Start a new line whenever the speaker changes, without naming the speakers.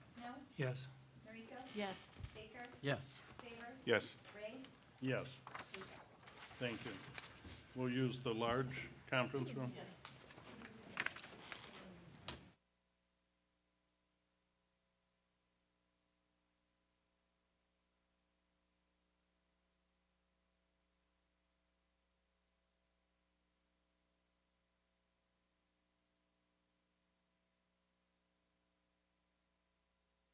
Yes.
Noriko,
Yes.
Baker,
Yes.
Faber,
Yes,
Ray,
yes,
Lucas.
thank you. We'll use the large conference room? Yes.